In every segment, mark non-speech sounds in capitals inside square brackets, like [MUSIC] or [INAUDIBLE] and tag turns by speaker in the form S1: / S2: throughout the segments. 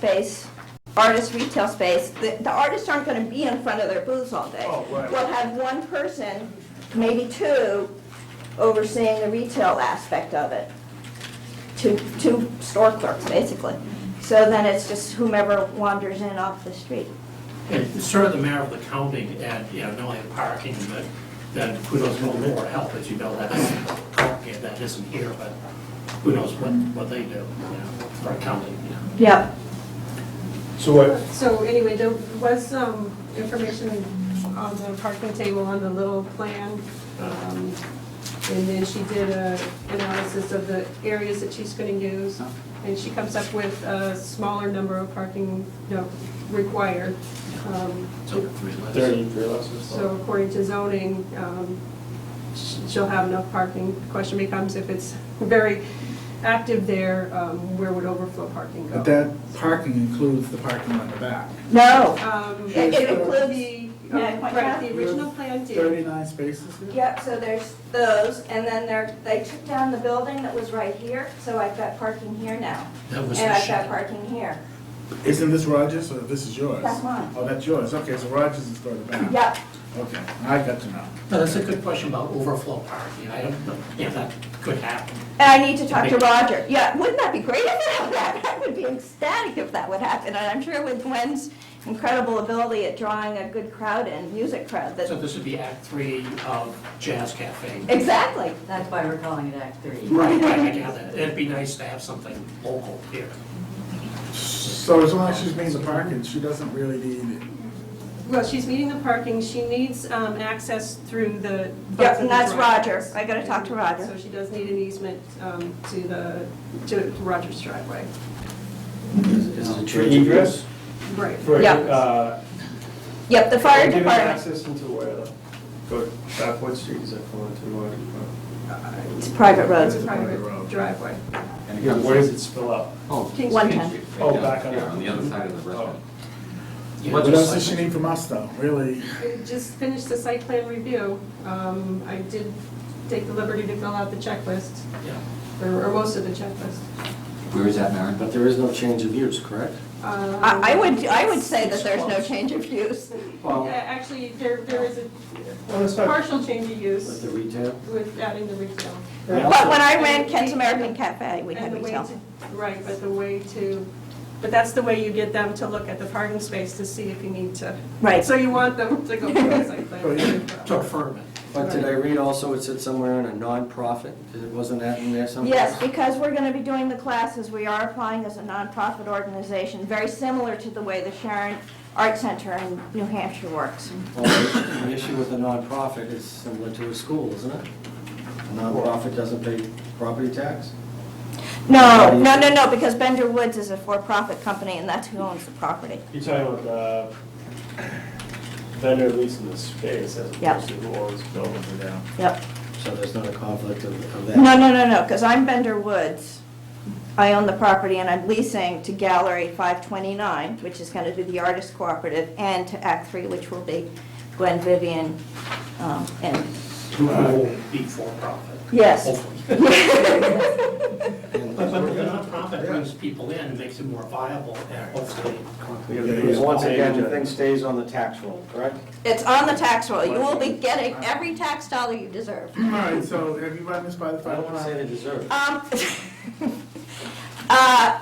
S1: space, artist retail space, the, the artists aren't gonna be in front of their booths all day.
S2: Oh, right.
S1: We'll have one person, maybe two, overseeing the retail aspect of it. Two, two store clerks, basically. So then it's just whomever wanders in off the street.
S2: It's sort of the mayor of the county, and, you know, knowing parking, but then who knows what more help, as you know, that's, yeah, that isn't here, but who knows what, what they do, you know, for our county, you know.
S1: Yep.
S3: So what,
S4: So anyway, there was some information on the parking table on the little plan. um, And then she did a analysis of the areas that she's gonna use. And she comes up with a smaller number of parking, you know, required. Um,
S2: It's over three less.
S3: thirty for lessons?
S4: So according to zoning, um, sh- she'll have enough parking. Question becomes if it's [LAUGHS] very active there, um, where would overflow parking go?
S5: But that parking includes the parking on the back.
S1: No.
S4: Um,
S1: It-
S5: it
S1: includes-
S4: the, uh,
S1: Yeah, point
S4: right,
S1: out.
S4: the original plan did.
S5: Thirty-nine spaces here?
S1: Yep, so there's those, and then there, they took down the building that was right here, so I've got parking here now.
S2: That was
S1: And
S2: the
S1: I've got
S2: shed.
S1: parking here.
S5: Isn't this Rogers or this is yours?
S1: That's mine.
S5: Oh, that's yours, okay, so Rogers is further back.
S1: Yep,
S5: Okay, I got to know.
S2: No, that's a good question about overflow parking, I don't know if that could happen.
S1: and I need to talk to Roger. Yeah, wouldn't that be great if it happened? [LAUGHS] I would be ecstatic if that would happen, and I'm sure with Gwen's incredible ability at drawing a good crowd in, music crowd,
S2: So
S1: that,
S2: this would be Act Three of Jazz Cafe.
S1: exactly.
S6: That's why we're calling it Act Three.
S2: Right, right, I gather, it'd be nice to have something local here.
S5: So as long as she's meeting the parking, she doesn't really need it.
S4: Well, she's meeting the parking, she needs um, access through the.
S1: Yep,
S4: both of
S1: and
S4: the
S1: that's Roger.
S4: driveways.
S1: I gotta talk to
S4: So
S1: Roger.
S4: she does need an easement um, to the, to Roger's driveway.
S3: For egress?
S4: Right.
S3: For,
S1: Yeah.
S3: uh,
S1: Yep, the fire
S3: Giving
S1: department.
S3: access into where, though? Go back, what street is that going to, what?
S1: It's private
S4: It's
S1: roads.
S4: a private driveway.
S3: And where does it spill out?
S7: Oh,
S4: King
S1: One
S4: Street.
S1: ten.
S3: Oh, back on Oh.
S7: Yeah, on
S3: the-
S7: the other side of the restaurant.
S2: Yeah,
S5: What
S2: just
S5: else
S2: like-
S5: does she need from us though, really?
S4: I Just finished the site plan review. Um, I did take the liberty to fill out the checklist,
S2: Yeah.
S4: or or most of the checklist.
S7: Where is that, Maren?
S8: But there is no change of use, correct?
S4: Um,
S1: I, I would, I would say that there's no change of use.
S4: Yeah, Actually, there, there is a
S3: Well, it's not,
S4: partial change of
S8: With
S4: use
S8: the retail?
S4: with adding the retail.
S1: But when I ran Kent's American Cafe, we had
S4: And the way
S1: retail.
S4: to- Right, but the way to, but that's the way you get them to look at the parking space to see if you need to.
S1: Right.
S4: So you want them to go for the site
S5: Oh,
S4: plan.
S5: yeah.
S2: To affirm it.
S8: But did I read also it said somewhere in a nonprofit? Wasn't that in there somewhere?
S1: Yes, because we're going to be doing the classes, we are applying as a nonprofit organization, very similar to the way the Sharon Art Center in New Hampshire works.
S8: Well, the the issue with a nonprofit is similar to a school, isn't it? A nonprofit doesn't pay property tax?
S1: No, no, no, no, because Bender Woods is a for-profit company, and that's who owns the property.
S3: you're talking about the vendor leasing the space as
S1: Yeah.
S3: opposed to who owns the building.
S1: Yep.
S8: So there's not a conflict of of that?
S1: No, no, no, no, because I'm Bender Woods, I own the property, and I'm leasing to Gallery 529, which is going to be the artist cooperative, and to Act 3, which will be Gwen Vivian um, and
S2: Who will be for profit.
S1: Yes.
S2: Hopefully. But, but the nonprofit brings people in, and makes it more viable, and hopefully.
S8: Because Once again, the thing stays on the tax roll, correct?
S1: It's on the tax roll. You will be getting every tax dollar you deserve.
S5: All right, so have you run this by the
S8: I
S5: fire
S8: don't want to say
S5: department?
S8: they deserve it.
S1: Um, [LAUGHS] uh,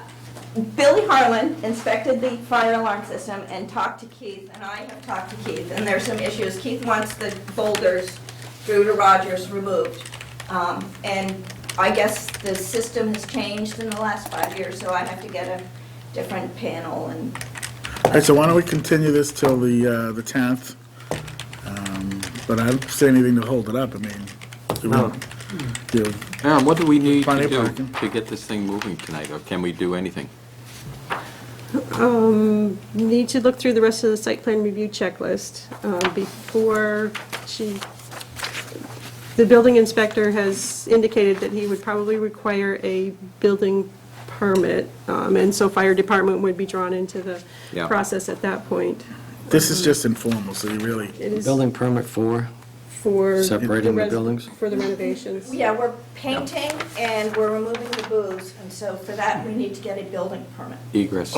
S1: Billy Harlan inspected the fire alarm system and talked to Keith, and I have talked to Keith, and there's some issues. Keith wants the boulders through to Rogers removed. Um, And I guess the system has changed in the last five years, so I have to get a different panel and
S5: All right, so why don't we continue this till the, uh, the tenth? Um, But I don't see anything to hold it up, I mean. it would-
S7: No.
S5: you-
S7: Aaron, what do we need
S5: Plenty
S7: to
S5: of
S7: do
S5: parking.
S7: to get this thing moving tonight, or can we do anything?
S4: Um, need to look through the rest of the site plan review checklist, um, before she, the building inspector has indicated that he would probably require a building permit, um, and so fire department would be drawn into the
S7: Yeah.
S4: process at that point.
S5: This is just informal, so you really,
S4: It is
S8: Building permit for
S4: for.
S8: separating the
S4: res-
S8: buildings?
S4: For the renovations.
S1: Yeah, we're painting and we're removing the booze, and so for that, we need to get a building permit.
S7: Egress.